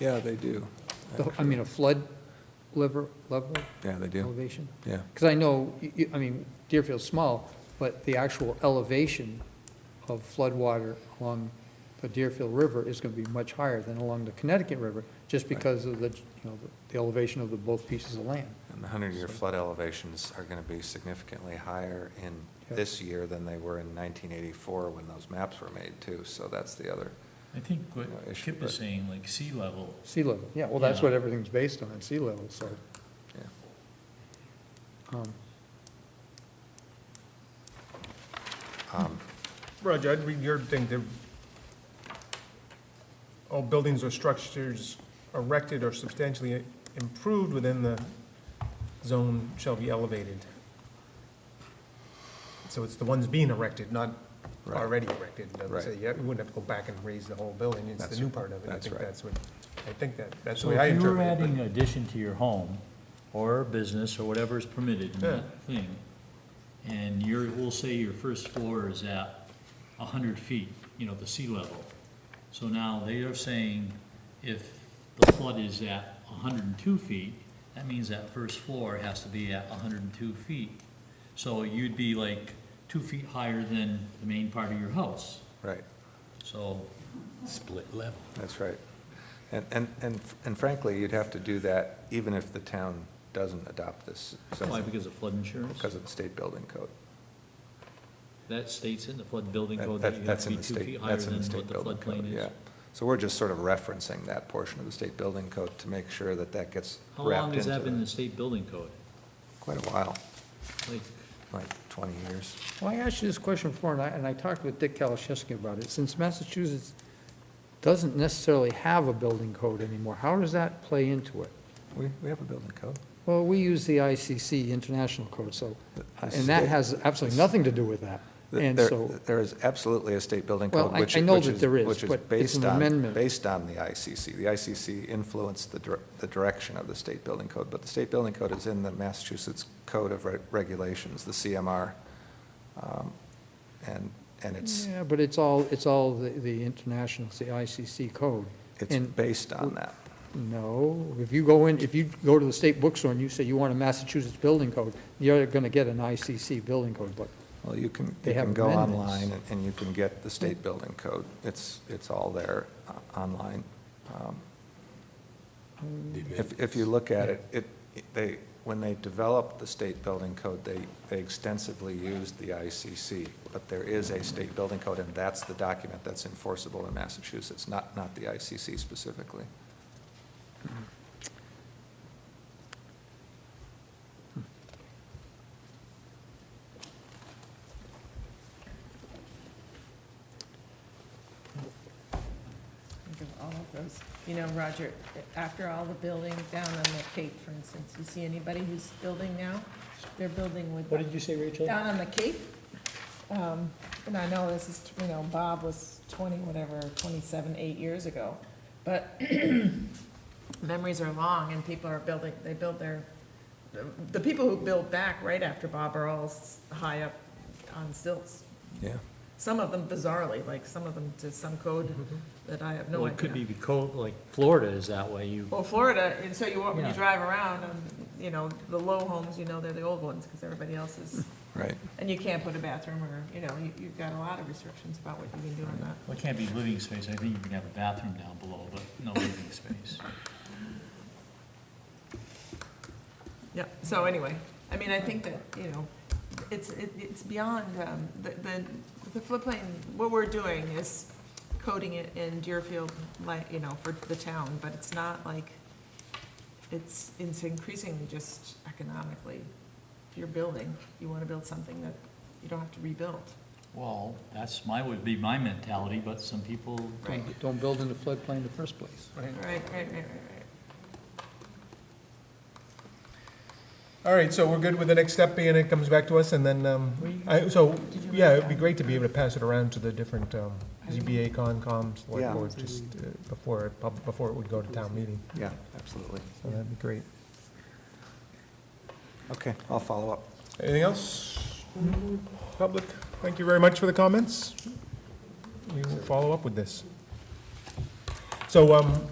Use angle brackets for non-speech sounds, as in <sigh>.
Yeah, they do. The- I mean, a flood lever, level Yeah, they do. elevation? Yeah. Because I know, y- y- I mean, Deerfield's small, but the actual elevation of floodwater along the Deerfield River is going to be much higher than along the Connecticut River, just because of the, you know, the elevation of the both pieces of land. And the 100-year flood elevations are going to be significantly higher in Yeah. this year than they were in 1984 when those maps were made, too. So that's the other, I think what No issue, Kip is but- saying, like sea level, Sea level, yeah, well, that's Yeah. what everything's based on, sea level, so. yeah. um, Um, Roger, I'd read your thing, that all buildings or structures erected or substantially improved within the zone shall be elevated. So it's the ones being erected, not Right. already erected. It doesn't say, Right. yeah, we wouldn't have to go back and raise the whole building, it's That's the new right. part of it. I That's think right. that's what, I think that, that's the so way I if you were interpret it. adding addition to your home, or business, or whatever is permitted in that thing, and you're, we'll say your first floor is at a hundred feet, you know, the sea level. So now they are saying if the flood is at hundred and two feet, that means that first floor has to be at hundred and two feet. So you'd be like two feet higher than the main part of your house, Right, so. Split level. that's right. And, and, and and frankly, you'd have to do that even if the town doesn't adopt this Why, zoning because of flood insurance? because of the state building code. That states in the flood building That- code that- that you have That's to in be the two feet state, higher that's in than the what state the building code, floodplain yeah. is. So we're just sort of referencing that portion of the state building code to make sure that that gets How long wrapped has into that been in the the- state building code? Quite a while, Like, like 20 years. Well, I asked you this question before, and I, and I talked with Dick Kalaszewski about it. Since Massachusetts doesn't necessarily have a building code anymore, how does that play into it? We, we have a building code. Well, we use the ICC International Code, so, The and that state- has absolutely nothing to do with that. Th- And there- so, There is absolutely a state building Well, code, I- which. I know which that there is, which but it's based an on- amendment. Based on the ICC. The ICC influenced the, dir- the direction of the state building code, but the state building code is in the Massachusetts Code of Re- Regulations, the CMR. Um, And, and it's, yeah, but it's all, it's all the, the international, it's the ICC code. it's And based on that. no, if you go in, if you go to the state bookstore and you say you want a Massachusetts building code, you're gonna get an ICC building code book. Well, you can, They you can have go amendments. online and- and you can get the state building code. It's, it's all there uh, online. Um, If, if you look at it, it, it- they, when they developed the state building code, they, they extensively used the ICC, but there is a state building code, and that's the document that's enforceable in Massachusetts, not, not the ICC specifically. Think of all of those. You know, Roger, after all the building down on the Cape, for instance, you see anybody who's building now? They're building with, what did you say, Rachel? down on the Cape. Um, And I know this is, you know, Bob was 20, whatever, 27, eight years ago. But <clears throat> memories are long and people are building, they build their, the people who build back right after Bob are all s- high up on stilts. Yeah. Some of them bizarrely, like some of them to some code that I have no idea. Mm-hmm. Well, it could be code, like Florida is that way, you, Well, Florida, and so you, walk- when you Yeah. drive around, um, you know, the low homes, you know, they're the old ones, because everybody else is, Right. and you can't put a bathroom, or, you know, you, you've got a lot of restrictions about what you can do on that. well, it can't be living space, I think you can have a bathroom down below, but no living space. Yeah, so anyway, I mean, I think that, you know, it's, it- it's beyond, um, the, the- the floodplain, what we're doing is coding it in Deerfield, like, you know, for the town, but it's not like, it's, it's increasingly just economically, if you're building, you wanna build something that you don't have to rebuild. Well, that's my, would be my mentality, but some people don't Right. Don't build in the floodplain in the first place. Right. Right, right, right, right, right. All right, so we're good with the next step being it comes back to us and then, um, I, so, Did you yeah, write it'd be down? great to be able to pass it around to the different, um, I will. ZBA, Concom, select Yeah. board, just uh, before, it pub- before it would go to town meeting. Yeah, absolutely. So that'd be great. Okay, I'll follow up. Anything else? Public, thank you very much for the comments. We will follow up with this. So, um,